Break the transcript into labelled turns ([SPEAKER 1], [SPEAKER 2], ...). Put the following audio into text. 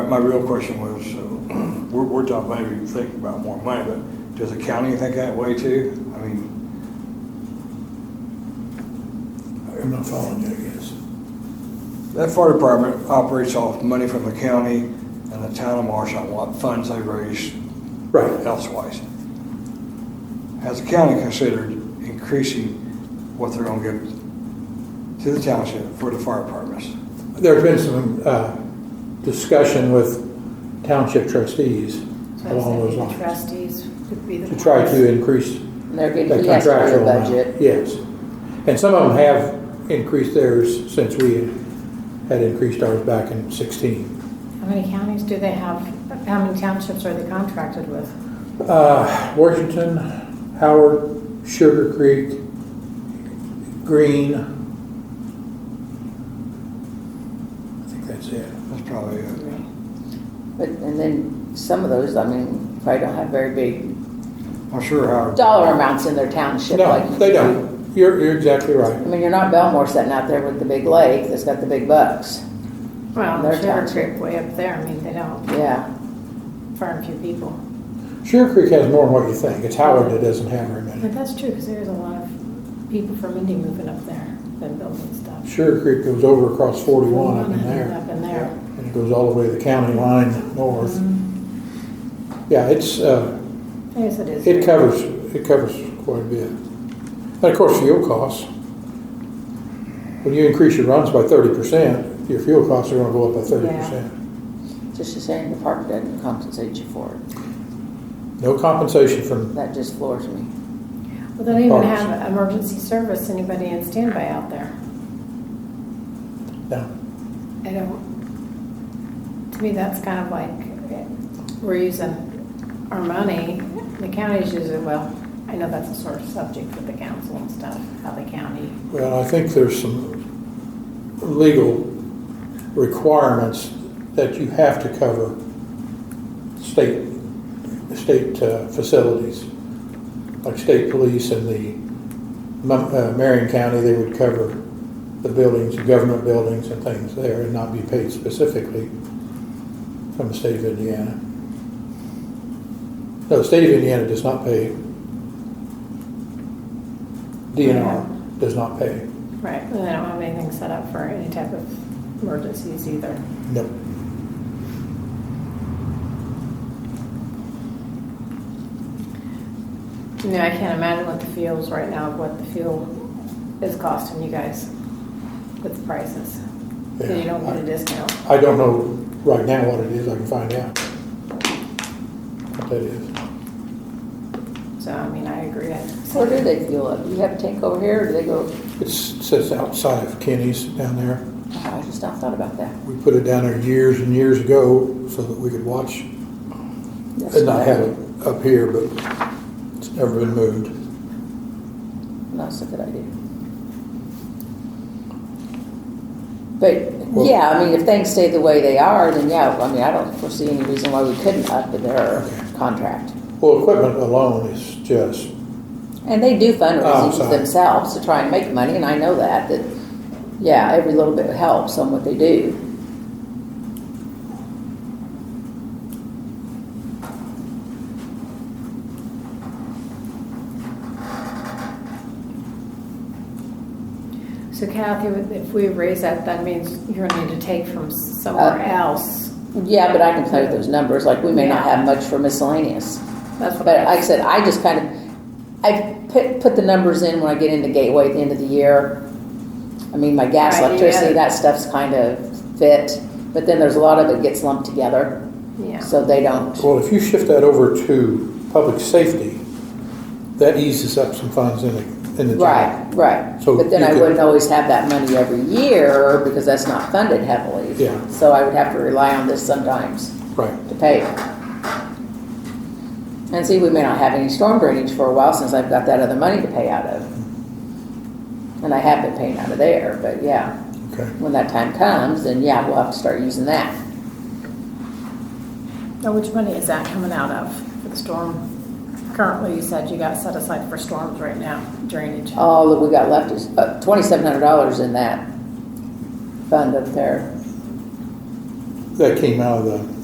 [SPEAKER 1] my real question was, uh, we're, we're talking maybe thinking about more money, but does the county think that way too? I mean,
[SPEAKER 2] I'm not following you, I guess.
[SPEAKER 1] that fire department operates off money from the county and the town of Marshall, what funds they raise
[SPEAKER 2] Right.
[SPEAKER 1] elsewise. Has the county considered increasing what they're gonna give to the township for the fire departments?
[SPEAKER 2] There's been some uh, discussion with township trustees
[SPEAKER 3] So I was
[SPEAKER 2] along those
[SPEAKER 3] thinking the
[SPEAKER 2] lines
[SPEAKER 3] Trustees could be the.
[SPEAKER 2] to try
[SPEAKER 3] ones.
[SPEAKER 2] to increase
[SPEAKER 4] They're
[SPEAKER 2] the
[SPEAKER 4] getting, he has part of
[SPEAKER 2] contractual
[SPEAKER 4] the
[SPEAKER 2] amount.
[SPEAKER 4] budget.
[SPEAKER 2] Yes. And some of them have increased theirs since we had increased ours back in 16.
[SPEAKER 3] How many counties do they have? How many townships are they contracted with?
[SPEAKER 2] Uh, Washington, Howard, Sugar Creek, Green. I think that's it.
[SPEAKER 1] That's probably it.
[SPEAKER 4] But, and then some of those, I mean, probably don't have very big
[SPEAKER 1] I'm sure Howard.
[SPEAKER 4] dollar amounts in their township.
[SPEAKER 2] No,
[SPEAKER 4] like-
[SPEAKER 2] they don't. You're, you're exactly right.
[SPEAKER 4] I mean, you're not Belmore sitting out there with the big lake that's got the big bucks.
[SPEAKER 3] Well,
[SPEAKER 4] Their
[SPEAKER 3] Sugar
[SPEAKER 4] township.
[SPEAKER 3] Creek way up there, I mean, they don't,
[SPEAKER 4] Yeah,
[SPEAKER 3] farm few people.
[SPEAKER 2] Sugar Creek has more than what you think. It's Howard that doesn't have very many.
[SPEAKER 3] But that's true, because there's a lot of people from Indy moving up there, been building stuff.
[SPEAKER 2] Sugar Creek goes over across forty-one up in there,
[SPEAKER 3] Up in there.
[SPEAKER 2] and it goes all the way to the county line north. Yeah, it's, uh,
[SPEAKER 3] Yes, it is.
[SPEAKER 2] it covers, it covers quite a bit. And of course, fuel costs. When you increase your runs by thirty percent, your fuel costs are gonna go up by thirty percent.
[SPEAKER 4] just as saying the park doesn't compensate you for it.
[SPEAKER 2] No compensation from,
[SPEAKER 4] That just floors me.
[SPEAKER 3] Well, they don't even
[SPEAKER 2] Parks.
[SPEAKER 3] have emergency service, anybody in standby out there.
[SPEAKER 2] no.
[SPEAKER 3] I don't, to me, that's kind of like, we're using our money, the county's using, well, I know that's a sort of subject with the council and stuff, how the county,
[SPEAKER 2] Well, I think there's some legal requirements that you have to cover state, state uh, facilities, like state police and the Mon- uh, Marion County, they would cover the buildings, government buildings and things there and not be paid specifically from the state of Indiana. No, the state of Indiana does not pay. DNR does not pay.
[SPEAKER 3] right, and they don't have anything set up for any type of emergencies either.
[SPEAKER 2] Nope.
[SPEAKER 3] You know, I can't imagine what the fuels right now, what the fuel is costing you guys with the prices. So you don't get a discount.
[SPEAKER 2] I don't know right now what it is, I can find out. What that is.
[SPEAKER 3] So, I mean, I agree. I-
[SPEAKER 4] Where do they fuel up? Do you have a tank over here or do they go?
[SPEAKER 2] It's, sits outside of Kenny's down there.
[SPEAKER 4] I just not thought about that.
[SPEAKER 2] We put it down there years and years ago so that we could watch
[SPEAKER 4] That's
[SPEAKER 2] and not
[SPEAKER 4] what I-
[SPEAKER 2] have it up here, but it's never been moved.
[SPEAKER 4] That's a good idea. But,
[SPEAKER 2] Well-
[SPEAKER 4] yeah, I mean, if things stay the way they are, then yeah, I mean, I don't foresee any reason why we couldn't up their
[SPEAKER 2] Okay.
[SPEAKER 4] contract.
[SPEAKER 2] Well, equipment alone is just,
[SPEAKER 4] And they do
[SPEAKER 2] Oh,
[SPEAKER 4] fundraising
[SPEAKER 2] sorry.
[SPEAKER 4] themselves to try and make money, and I know that, that, yeah, every little bit helps on what they do.
[SPEAKER 3] So Kathy, if we raise that, that means you're gonna need to take from somewhere
[SPEAKER 4] Uh,
[SPEAKER 3] else.
[SPEAKER 4] Yeah, but I can play with those numbers, like, we may not have much for miscellaneous.
[SPEAKER 3] That's what
[SPEAKER 4] But like I
[SPEAKER 3] I,
[SPEAKER 4] said, I just kind of, I put, put the numbers in when I get into Gateway at the end of the year. I mean, my gas,
[SPEAKER 3] Right, you
[SPEAKER 4] electricity,
[SPEAKER 3] added-
[SPEAKER 4] that stuff's kind of fit, but then there's a lot of it gets lumped together,
[SPEAKER 3] yeah.
[SPEAKER 4] so they don't.
[SPEAKER 2] well, if you shift that over to public safety, that eases up some funds in the, in the. general.
[SPEAKER 4] Right, right.
[SPEAKER 2] So
[SPEAKER 4] But then
[SPEAKER 2] you
[SPEAKER 4] I
[SPEAKER 2] could-
[SPEAKER 4] wouldn't always have that money every year because that's not funded heavily.
[SPEAKER 2] Yeah.
[SPEAKER 4] So I would have to rely on this sometimes
[SPEAKER 2] Right.
[SPEAKER 4] to pay. it. And see, we may not have any storm drainage for a while since I've got that other money to pay out of. And I have been paying out of there, but yeah,
[SPEAKER 2] Okay.
[SPEAKER 4] when that time comes, then yeah, we'll have to start using that.
[SPEAKER 3] Now, which money is that coming out of for the storm? Currently, you said you got set aside for storms right now, drainage.
[SPEAKER 4] All that we got left is uh, twenty-seven hundred dollars in that fund up there.
[SPEAKER 2] That came out of the